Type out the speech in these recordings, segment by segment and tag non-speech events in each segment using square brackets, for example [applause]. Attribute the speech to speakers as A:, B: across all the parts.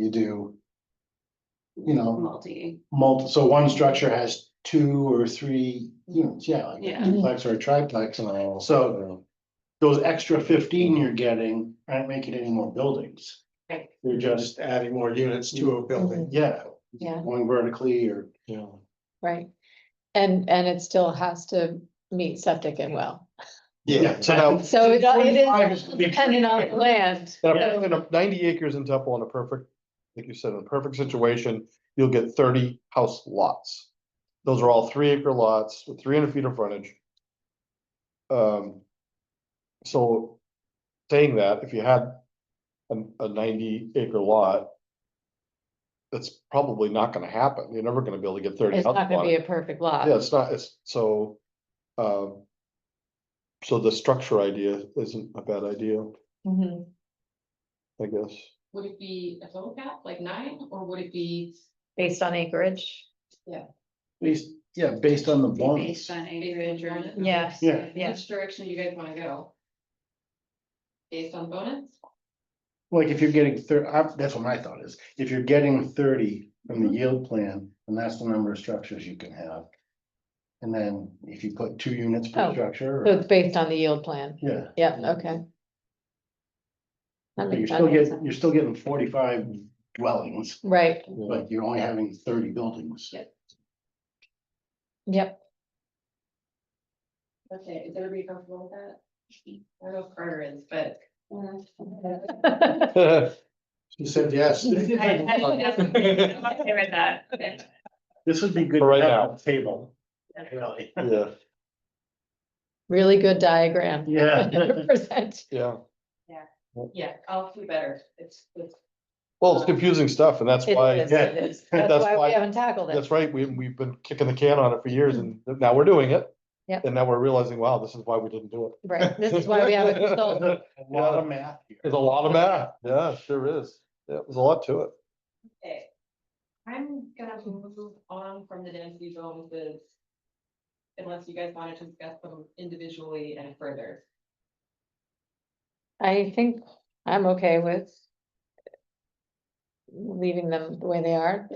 A: you do. You know,
B: multi,
A: multi, so one structure has two or three units, yeah, like a
B: Yeah.
A: duplex or a triplex. So those extra fifteen you're getting aren't making any more buildings.
B: Right.
A: They're just,
C: Just adding more units to a building.
A: yeah,
D: Yeah,
A: going vertically or,
C: Yeah.
D: right. And, and it still has to meet septic and well.
A: yeah.
C: So now-
D: So it it
A: Forty-five
D: is
A: is gonna be-
D: dependent on the land.
C: Now, if in a ninety acres in Temple in a perfect, like you said, in a perfect situation, you'll get thirty house lots. Those are all three acre lots with three hundred feet of frontage. Um, so saying that, if you had a, a ninety acre lot, that's probably not gonna happen. You're never gonna be able to get thirty.
D: It's
C: houses
D: not
C: on
D: gonna
C: it.
D: be a perfect lot.
C: Yeah, it's not, it's so, um. So the structure idea isn't a bad idea,
D: Mhm.
C: I guess.
B: would it be a total cap, like nine, or would it be
D: Based on acreage.
A: Based, yeah, based on the bonus.
B: based on acreage or?
D: Yeah.
E: [laughs]
A: Yeah.
D: Yeah.
B: Which direction you guys wanna go? Based on bonus?
A: Like if you're getting thir- I- that's what my thought is, if you're getting thirty from
D: Mm-hmm.
A: the yield plan, then that's the number of structures you can have. And then if you put two units per
D: Oh,
A: structure,
D: So
A: or-
D: it's based on the yield plan.
A: yeah.
D: Yeah, okay. That
A: But You're
D: makes- that
A: still
D: makes
A: getting,
D: sense.
A: you're still getting forty-five dwellings,
D: Right,
A: but you're only having thirty buildings.
B: Yeah.
D: yep.
B: Okay, is everybody comfortable with that? I don't know if Carter is, but.
A: She said
D: [laughs]
A: yes.
B: Okay
C: [laughs]
B: with that.
A: This would be good.
C: For right
A: to have on
C: now.
A: the Table. Really.
C: Yeah,
D: Really good [laughs] diagram.
A: Yeah.
D: 100%.
C: yeah.
B: Yeah, I'll do better, it's, it's.
C: Well, it's confusing stuff and that's
D: It
C: why,
D: is, it is. That's
C: That's
D: why
C: why-
D: we haven't tackled it.
C: that's right, we, we've been kicking the can on it for years and now we're doing it.
D: Yep.
C: And now we're realizing, wow, this is why we didn't do it.
D: Right, this is why we
C: [laughs]
D: haven't consulted.
A: A lot of math. here.
C: There's a lot of math, yeah, sure is, yeah, there's a lot to it.
B: Okay. I'm gonna move on from the density bonuses. Unless you guys wanted to discuss them individually and further.
D: I think I'm okay with. Leaving them the way they are.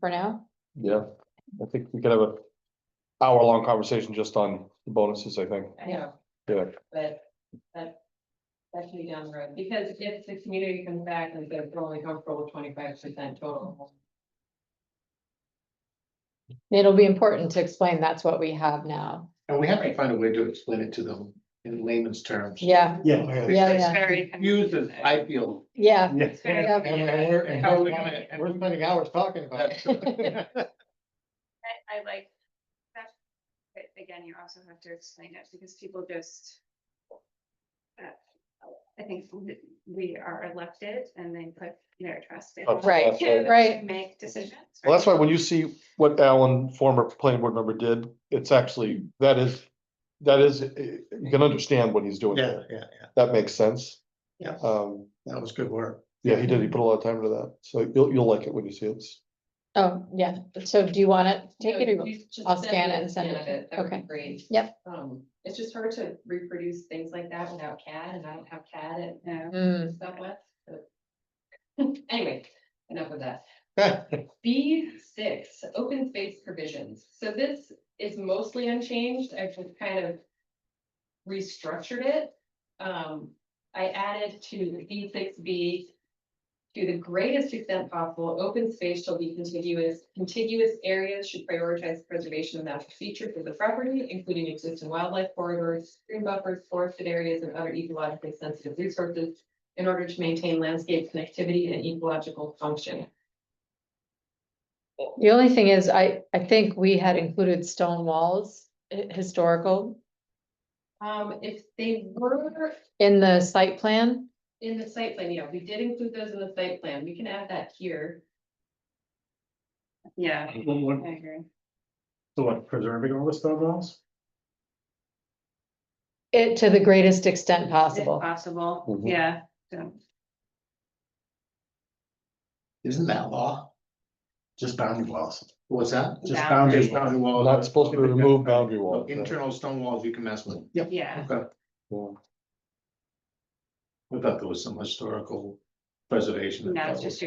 D: For now,
C: Yeah, I think we could have a hour-long conversation just on the bonuses, I think,
B: I know,
C: yeah.
B: but that. That should be down the road, because if the community comes back and says we're only comfortable with twenty-five percent total.
D: it'll be important to explain that's what we have now.
F: And we have to find a way to explain it to them in layman's terms.
D: Yeah,
A: Yeah.
D: Yeah,
F: It's
D: yeah.
B: Very
F: Confused as I feel.
D: yeah,
A: Yeah.
B: Very
D: Yeah.
F: And- and we're- and
C: How
F: how
C: we
F: we
C: gonna-
F: gonna-
C: and we're spending hours talking about
A: [laughs]
C: it.
E: I, I like that, but again, you also have to explain it because people just. uh, I think we- we are elected and they put their trust in.
C: Oh,
E: us
D: right,
E: to-
C: Absolutely.
D: right.
E: to Make decisions.
C: Well, that's why
E: right?
C: when you see what Alan, former planning board member did, it's actually, that is, that is, eh, you can understand what he's doing.
F: Yeah, yeah, yeah,
C: That makes sense.
F: Yeah.
C: Um,
F: that was good work.
C: yeah, he did, he put a lot of time into that, so you'll, you'll like it when you see it.
D: oh, yeah, so do you wanna take it?
B: No,
D: or-
B: you just
D: I'll
B: send
D: scan
B: me
D: it
B: a
D: and send it
B: scan of
D: to you.
B: that would be
D: Okay.
B: Great.
D: Yep.
B: Um, it's just hard to reproduce things like that without CAD, and I don't have CAD at
E: Yeah.
D: Hmm,
B: Southwest. but- [laughs] Anyway, enough of that. B six, open space provisions. So this is mostly unchanged. I've just kind of restructured it. Um, I added to B six B. To the greatest extent possible, open space shall be contiguous. Contiguous areas should prioritize preservation of natural features of the property, including existing wildlife corridors, stream buffers, forested areas, and other ecologically sensitive resources in order to maintain landscape connectivity and ecological function.
D: The only thing is, I, I think we had included stone walls, hi- historical,
B: Um, if they were
D: in the site plan.
B: in the site plan, yeah, we did include those in the site plan, we can add that here.
E: Yeah,
A: One
E: I
A: more-
E: agree.
A: So what, preserving all the stone walls?
D: It to the greatest extent
E: If
D: possible.
E: possible,
C: Mhm.
E: yeah, so,
F: Isn't that law?
A: Just boundary walls.
F: What's that?
A: Just
E: Boundary.
A: boundary.
F: Just
A: walls.
F: boundary
C: Well,
F: walls.
C: Not supposed to remove boundary walls.
F: Internal stone walls you can mess with.
E: yeah,
F: Okay.
C: Yeah.
F: I thought there was some historical preservation.
E: no,
F: that
E: it's
F: was-
E: just